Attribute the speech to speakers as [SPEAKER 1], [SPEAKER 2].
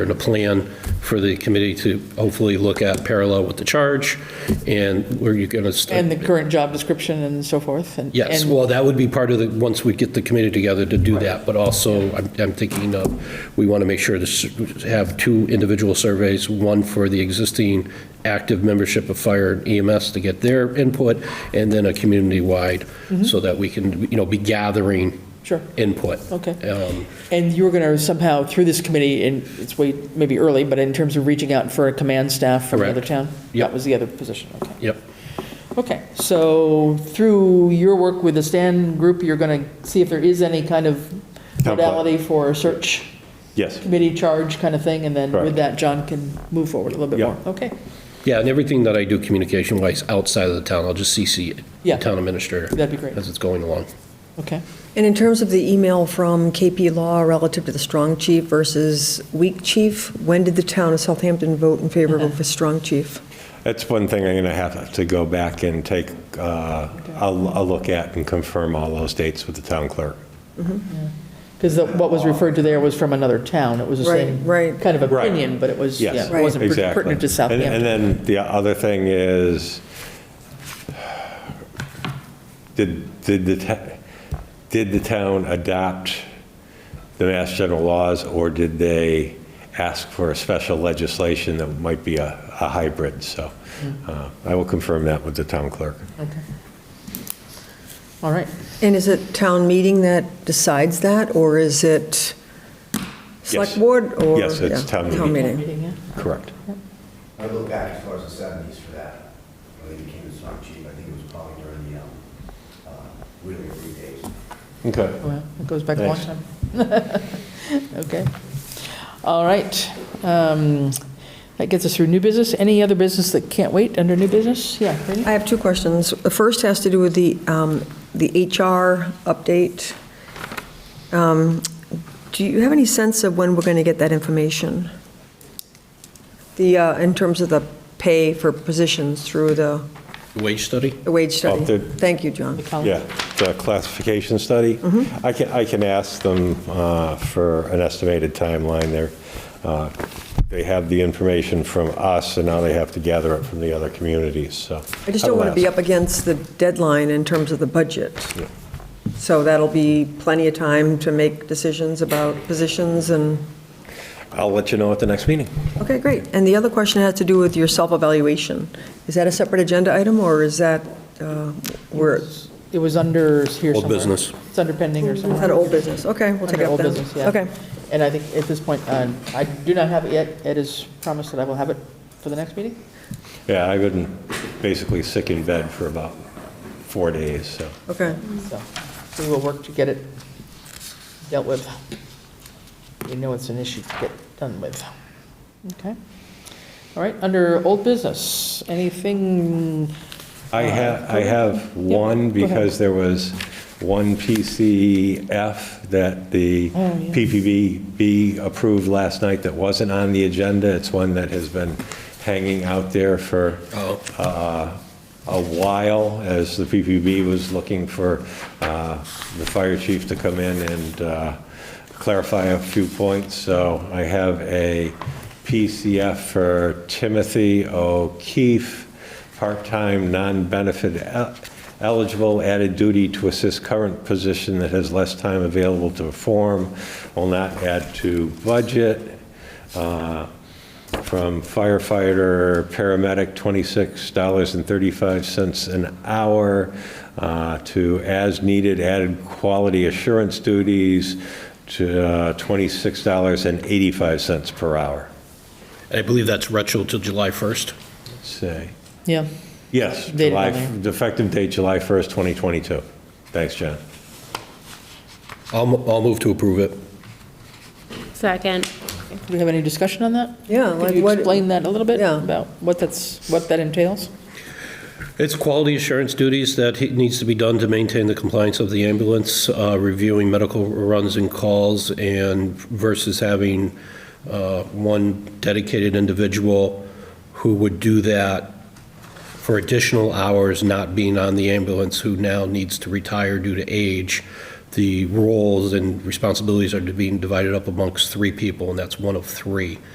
[SPEAKER 1] and a plan for the committee to hopefully look at parallel with the charge, and where you're going to.
[SPEAKER 2] And the current job description and so forth? and-
[SPEAKER 1] Yes,
[SPEAKER 2] and-
[SPEAKER 1] well, that would be part of the, once we get the committee together to do that, but also, I'm I'm thinking of, we want to make sure to s- have two individual surveys, one for the existing active membership of fire and EMS to get their input, and then a community-wide, so that we can, you know, be gathering
[SPEAKER 2] Mm-hmm. Sure,
[SPEAKER 1] input.
[SPEAKER 2] okay.
[SPEAKER 1] Um,
[SPEAKER 2] And you were going to somehow, through this committee, and it's way, maybe early, but in terms of reaching out for a command staff from another
[SPEAKER 1] Correct.
[SPEAKER 2] town?
[SPEAKER 1] Yep.
[SPEAKER 2] That was the other position, okay.
[SPEAKER 1] Yep,
[SPEAKER 2] Okay, so through your work with the Stan group, you're going to see if there is any kind of
[SPEAKER 3] Template.
[SPEAKER 2] modality for a search
[SPEAKER 3] Yes.
[SPEAKER 2] committee charge kind of thing, and then with
[SPEAKER 3] Correct.
[SPEAKER 2] that, John can move forward a little bit
[SPEAKER 3] Yeah.
[SPEAKER 2] more. Okay,
[SPEAKER 1] yeah, and everything that I do communication-wise outside of the town, I'll just CC the
[SPEAKER 2] Yeah.
[SPEAKER 1] town administrator.
[SPEAKER 2] That'd be great.
[SPEAKER 1] As it's going along.
[SPEAKER 2] okay.
[SPEAKER 4] And in terms of the email from KP Law relative to the strong chief versus weak chief, when did the town of Southampton vote in favor of a strong chief?
[SPEAKER 3] That's one thing I'm going to have to go back and take, uh, I'll I'll look at and confirm all those dates with the town clerk.
[SPEAKER 2] Because what was referred to there was from another town. It was the
[SPEAKER 4] Right,
[SPEAKER 2] same
[SPEAKER 4] right.
[SPEAKER 2] kind of
[SPEAKER 3] Right.
[SPEAKER 2] opinion, but it was, yeah,
[SPEAKER 3] Yes,
[SPEAKER 2] it wasn't per-
[SPEAKER 3] exactly.
[SPEAKER 2] pertinent to
[SPEAKER 3] And-
[SPEAKER 2] Southampton.
[SPEAKER 3] And then the other thing is, did, did the, ta- did the town adopt the Mass General laws, or did they ask for a special legislation that might be a, a hybrid? So
[SPEAKER 2] Mm-hmm.
[SPEAKER 3] uh, I will confirm that with the town clerk.
[SPEAKER 2] All right.
[SPEAKER 4] And is it town meeting that decides that, or is it select
[SPEAKER 3] Yes.
[SPEAKER 4] board? or-
[SPEAKER 3] Yes, it's
[SPEAKER 4] yeah,
[SPEAKER 3] town
[SPEAKER 4] Town
[SPEAKER 3] meeting.
[SPEAKER 4] meeting.
[SPEAKER 2] yeah?
[SPEAKER 3] Correct.
[SPEAKER 5] I go back as far as the seventies for that, when they became the strong chief, I think it was probably during the, um, uh, really early days.
[SPEAKER 3] Okay.
[SPEAKER 2] Oh, Well, it goes back a long
[SPEAKER 3] Thanks.
[SPEAKER 2] time. Okay. All right. Um, That gets us through new business. Any other business that can't wait under new business? Yeah. Randy?
[SPEAKER 4] I have two questions. The first has to do with the, um, the HR update. Um, Do you have any sense of when we're going to get that information? The, uh, in terms of the pay for positions through the
[SPEAKER 1] Wage study?
[SPEAKER 4] the wage study?
[SPEAKER 3] Oh, the-
[SPEAKER 4] Thank you, John.
[SPEAKER 2] Colin?
[SPEAKER 3] Yeah, the classification study.
[SPEAKER 4] Mm-hmm.
[SPEAKER 3] I can, I can ask them uh, for an estimated timeline there. Uh, They have the information from us, and now they have to gather it from the other communities, so.
[SPEAKER 4] I just don't want to be
[SPEAKER 3] I'll ask.
[SPEAKER 4] up against the deadline in terms of the budget. So that'll be plenty of time to make decisions about positions and,
[SPEAKER 3] I'll let you know at the next meeting.
[SPEAKER 4] okay, great. And the other question has to do with your self-evaluation. Is that a separate agenda item, or is that, uh, we're, is
[SPEAKER 2] It was under here
[SPEAKER 1] Old
[SPEAKER 2] somewhere.
[SPEAKER 1] business.
[SPEAKER 2] It's under pending or somewhere.
[SPEAKER 4] that old business? Okay, we'll take
[SPEAKER 2] Under
[SPEAKER 4] it up
[SPEAKER 2] old
[SPEAKER 4] then.
[SPEAKER 2] business, yeah.
[SPEAKER 4] Okay,
[SPEAKER 2] And I think at this point, uh, I do not have it yet. Ed has promised that I will have it for the next meeting.
[SPEAKER 3] Yeah, I've been basically sick in bed for about four days, so.
[SPEAKER 4] okay.
[SPEAKER 2] So we will work to get it dealt with. We know it's an issue to get done with. Okay. All right, under old business, anything,
[SPEAKER 3] I
[SPEAKER 2] Uh,
[SPEAKER 3] have, I have one,
[SPEAKER 2] go ahead.
[SPEAKER 3] because there was one PCF that the
[SPEAKER 2] Oh, yeah.
[SPEAKER 3] PPVB approved last night that wasn't on the agenda. It's one that has been hanging out there for
[SPEAKER 1] Oh.
[SPEAKER 3] uh, a while, as the PPB was looking for uh, the fire chief to come in and uh, clarify a few points. So I have a PCF for Timothy O'Keefe, part-time, non-benefit el- eligible, added duty to assist current position that has less time available to perform, will not add to budget from firefighter, paramedic, $26.35 an hour, uh, to as-needed added quality assurance duties to uh, $26.85 per hour.
[SPEAKER 1] I believe that's retro till July 1st.
[SPEAKER 3] Let's see.
[SPEAKER 2] yeah,
[SPEAKER 3] Yes,
[SPEAKER 2] Date
[SPEAKER 3] July,
[SPEAKER 2] on
[SPEAKER 3] effective date July 1st, 2022. Thanks, John.
[SPEAKER 1] I'll, mo- I'll move to approve it.
[SPEAKER 6] Second.
[SPEAKER 2] do we have any discussion on that?
[SPEAKER 4] Yeah, like
[SPEAKER 2] Could you
[SPEAKER 4] what-
[SPEAKER 2] explain that a little bit?
[SPEAKER 4] Yeah.
[SPEAKER 2] About what that's, what that entails?
[SPEAKER 1] It's quality assurance duties that he- needs to be done to maintain the compliance of the ambulance, uh, reviewing medical runs and calls, and versus having uh, one dedicated individual who would do that for additional hours, not being on the ambulance, who now needs to retire due to age. The roles and responsibilities are being divided up amongst three people, and that's one of three.